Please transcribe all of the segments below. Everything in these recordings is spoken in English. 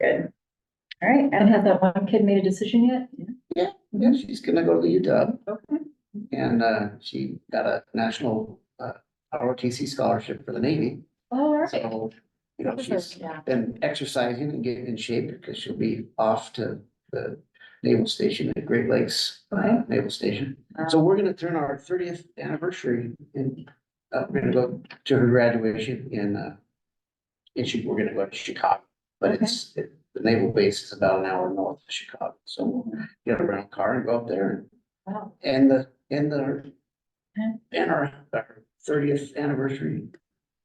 Good. All right, And and has that one kid made a decision yet? Yeah, she's gonna go to the UW okay, and uh she got a national uh ROTC scholarship for the Navy. All right. So, you know, she's been exercising and getting in shape because she'll be off to the naval station at Great Lakes uh, Naval Station. So we're gonna turn our thirtieth anniversary and uh we're gonna go to her graduation in uh and she, we're gonna go to Chicago, but it's, it- the naval base is about an hour north of Chicago, so we'll get a rental car and go up there and Wow. and the, and the. Okay. And our, our thirtieth anniversary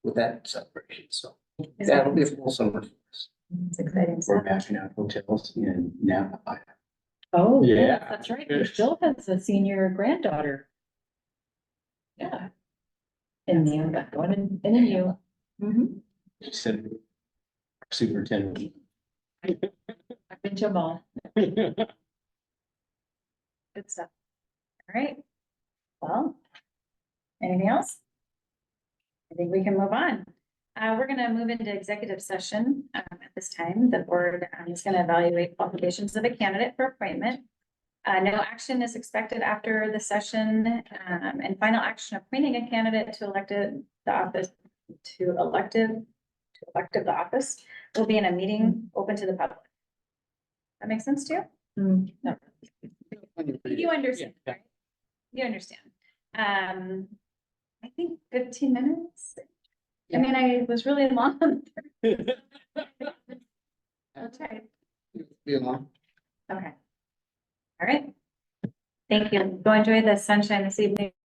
with that celebration, so Is that'll be a full summer. for us. it's exciting We're stuff. mapping out hotels in Napa. Oh, yeah, Yeah. that's right. Jill has a senior granddaughter. Yeah. In the, that one in, in the U. Mhm. She said, Superintendent. I've been to them all. Good stuff. All right. Well, anything else? I think we can move on. Uh, we're gonna move into executive session. Um, at this time, the board um, is gonna evaluate qualifications of a candidate for appointment. Uh, no action is expected after the session, um, and final action appointing a candidate to elected the office to elective, to elective the office will be in a meeting open to the public. That makes sense to you? Mm. You understand, yeah. right? You understand. Um, I think fifteen minutes. I mean, I was really long. That's right. Be along. Okay. All right. Thank you. Go enjoy the sunshine this evening.